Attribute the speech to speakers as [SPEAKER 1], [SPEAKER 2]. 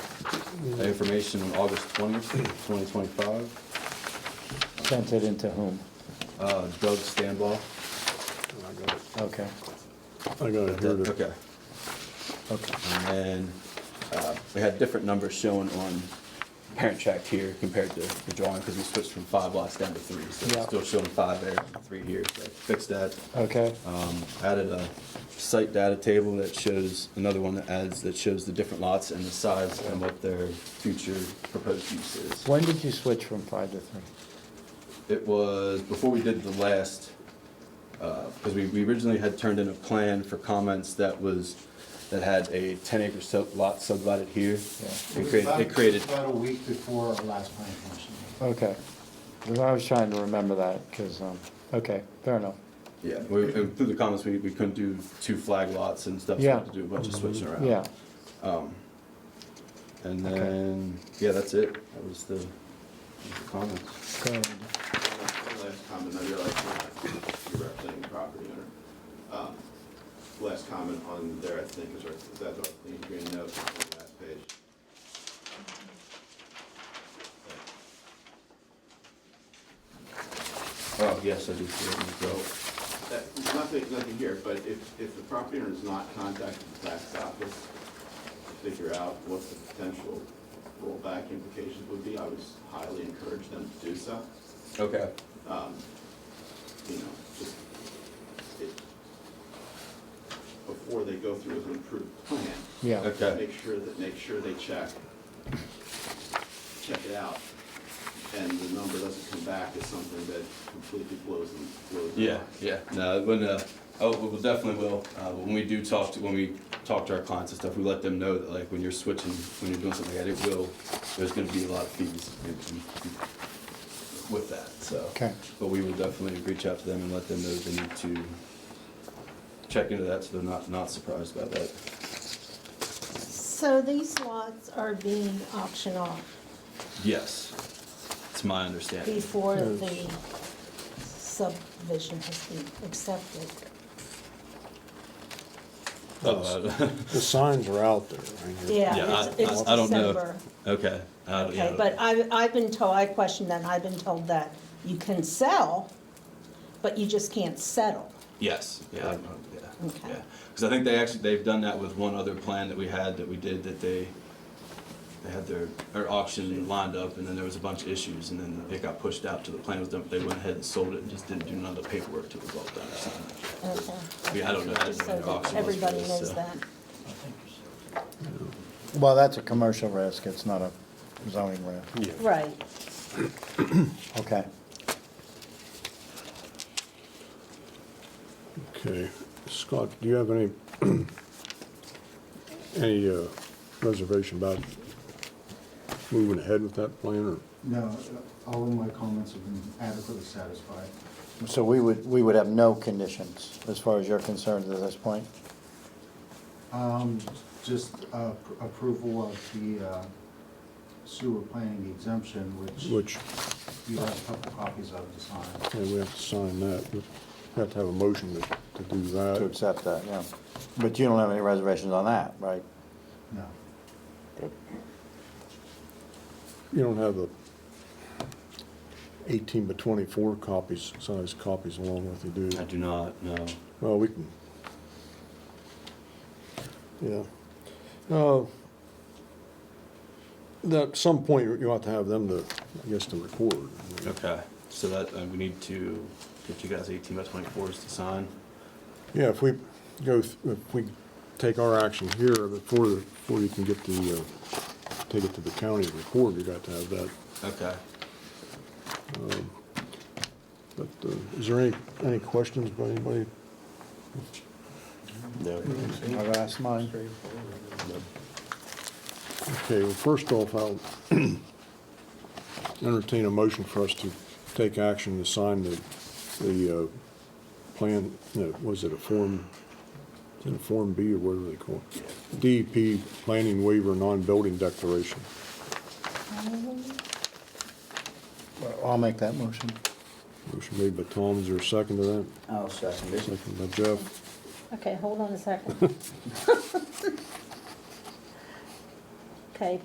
[SPEAKER 1] Information on August twentieth, twenty twenty-five,
[SPEAKER 2] Sent it into whom?
[SPEAKER 1] uh, Doug Stanbaugh.
[SPEAKER 3] I got it.
[SPEAKER 2] Okay,
[SPEAKER 3] I got it here. to-
[SPEAKER 1] Okay,
[SPEAKER 2] okay.
[SPEAKER 1] and then, uh, we had different numbers shown on parent track here compared to the drawing, because we switched from five lots down to three, so
[SPEAKER 2] Yeah.
[SPEAKER 1] it's still showing five there, three here, so fixed that.
[SPEAKER 2] Okay,
[SPEAKER 4] Uh.
[SPEAKER 1] Um, added a site data table that shows, another one that adds, that shows the different lots and the size and what their future proposed use is.
[SPEAKER 2] when did you switch from five to three?
[SPEAKER 1] It was before we did the last, because we we originally had turned in a plan for comments that was, that had a 10 acre sub- lot subdivided here.
[SPEAKER 2] Yeah.
[SPEAKER 1] It created, it created,
[SPEAKER 4] About a week before our last planning commission meeting.
[SPEAKER 2] Okay, 'Cause I was trying to remember that, because, um, okay, fair enough.
[SPEAKER 1] yeah, we- and through the comments, we we couldn't do two flag lots and stuff, so we had to do a bunch of switching around.
[SPEAKER 2] Yeah,
[SPEAKER 1] And then, yeah, that's it. That was the the comments.
[SPEAKER 2] good.
[SPEAKER 5] Last comment, I realize you're not- you're representing the property owner. Um, Last comment on there, I think, is, our- is that the clean green note on the last page?
[SPEAKER 1] Oh, yes, I do see it.
[SPEAKER 5] So, that, nothing, nothing here, but if, if the property owner is not contacted the tax office to figure out what the potential rollback implications would be, I would highly encourage them to do so.
[SPEAKER 1] Okay.
[SPEAKER 5] you know, just, it, before they go through with an approved plan.
[SPEAKER 2] Yeah.
[SPEAKER 1] Okay.
[SPEAKER 5] Make sure that, make sure they check, check it out, and the number doesn't come back as something that completely blows them, blows them.
[SPEAKER 1] Yeah, yeah. No, when, uh, oh, we will definitely will. Uh, when we do talk to, when we talk to our clients and stuff, we let them know that like when you're switching, when you're doing something like that, it will, there's gonna be a lot of fees in- in- with that, so.
[SPEAKER 2] Okay.
[SPEAKER 1] But we will definitely reach out to them and let them know they need to check into that so they're not, not surprised by that.
[SPEAKER 6] So these lots are being auctioned off
[SPEAKER 1] Yes, it's my understanding.
[SPEAKER 6] before the subdivision has been accepted.
[SPEAKER 1] Uh,
[SPEAKER 3] The signs are out there, right here.
[SPEAKER 6] Yeah,
[SPEAKER 1] Yeah, I-
[SPEAKER 6] it's- it's
[SPEAKER 1] I- I don't know.
[SPEAKER 6] December.
[SPEAKER 1] Okay. I don't- yeah, I don't-
[SPEAKER 6] Okay, but I, I've been told, I questioned that, and I've been told that you can sell, but you just can't settle.
[SPEAKER 1] Yes, yeah, I don't know, yeah,
[SPEAKER 6] Okay.
[SPEAKER 1] yeah. Because I think they actually, they've done that with one other plan that we had that we did that they, they had their, their auction lined up and then there was a bunch of issues and then it got pushed out to the plan was done, they went ahead and sold it and just didn't do none of the paperwork till it was all done or something like that.
[SPEAKER 6] Okay.
[SPEAKER 1] Yeah, I don't know. I didn't
[SPEAKER 6] Just
[SPEAKER 1] know
[SPEAKER 6] so
[SPEAKER 1] their auction was
[SPEAKER 6] that
[SPEAKER 1] for
[SPEAKER 6] everybody
[SPEAKER 1] this,
[SPEAKER 6] knows
[SPEAKER 1] so.
[SPEAKER 6] that.
[SPEAKER 2] Well, that's a commercial risk, it's not a zoning risk.
[SPEAKER 6] Right.
[SPEAKER 2] Okay,
[SPEAKER 3] Okay, Scott, do you have any, any uh, reservation about moving ahead with that plan, or?
[SPEAKER 4] No, all of my comments have been adequately satisfied.
[SPEAKER 2] so we would, we would have no conditions as far as you're concerned at this point?
[SPEAKER 4] Um, Just uh, pr- approval of the uh, sewer planning exemption, which
[SPEAKER 3] Which,
[SPEAKER 4] you have a couple copies of to sign.
[SPEAKER 3] yeah, we have to sign that, we have to have a motion to, to do that.
[SPEAKER 2] To accept that, yeah. But you don't have any reservations on that, right?
[SPEAKER 4] No,
[SPEAKER 3] You don't have the eighteen by twenty-four copies, size copies along with you, do
[SPEAKER 1] I
[SPEAKER 3] you?
[SPEAKER 1] do not, know.
[SPEAKER 3] Well, we can. Yeah. Uh, that- At some point, you- you ought to have them to, I guess, to record.
[SPEAKER 1] Okay, so that, uh, we need to get you guys eighteen by twenty-fours to sign.
[SPEAKER 3] Yeah, if we go, th- if we take our action here before, the- before you can get the, uh, take it to the county and record, you got to have that. um,
[SPEAKER 1] Okay.
[SPEAKER 3] But uh, is there any, any questions by anybody?
[SPEAKER 1] No.
[SPEAKER 2] I've asked mine.
[SPEAKER 3] Okay, well, first off, I'll entertain a motion for us to take action to sign the, the uh, plan, no, was it a Form, is it a Form B or whatever they call it? DEP Planning Waiver Non-Building Declaration.
[SPEAKER 2] I'll make that motion.
[SPEAKER 3] Motion made by Tom, is there a second to that?
[SPEAKER 4] I'll second
[SPEAKER 3] Second by Jeff.
[SPEAKER 6] Okay, hold on a second.